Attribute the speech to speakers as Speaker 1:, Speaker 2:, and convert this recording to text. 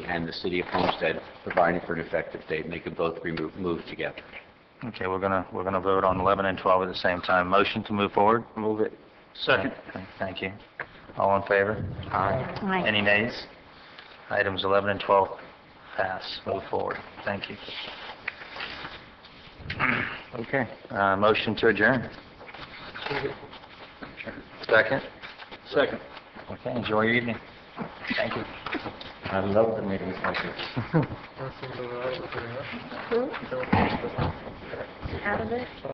Speaker 1: and the City of Homestead providing for an effective date, and they could both be mo- moved together.
Speaker 2: Okay, we're gonna, we're gonna vote on 11 and 12 at the same time. Motion to move forward?
Speaker 3: Move it.
Speaker 2: Okay, Thank you. All in favor?
Speaker 4: Aye.
Speaker 2: Any nays? Items 11 and 12 pass. Move forward. Thank you. Okay, uh, motion to adjourn. Second?
Speaker 3: Second.
Speaker 2: Okay, enjoy your evening. Thank you.
Speaker 1: I love the meetings like this.
Speaker 4: Out of it?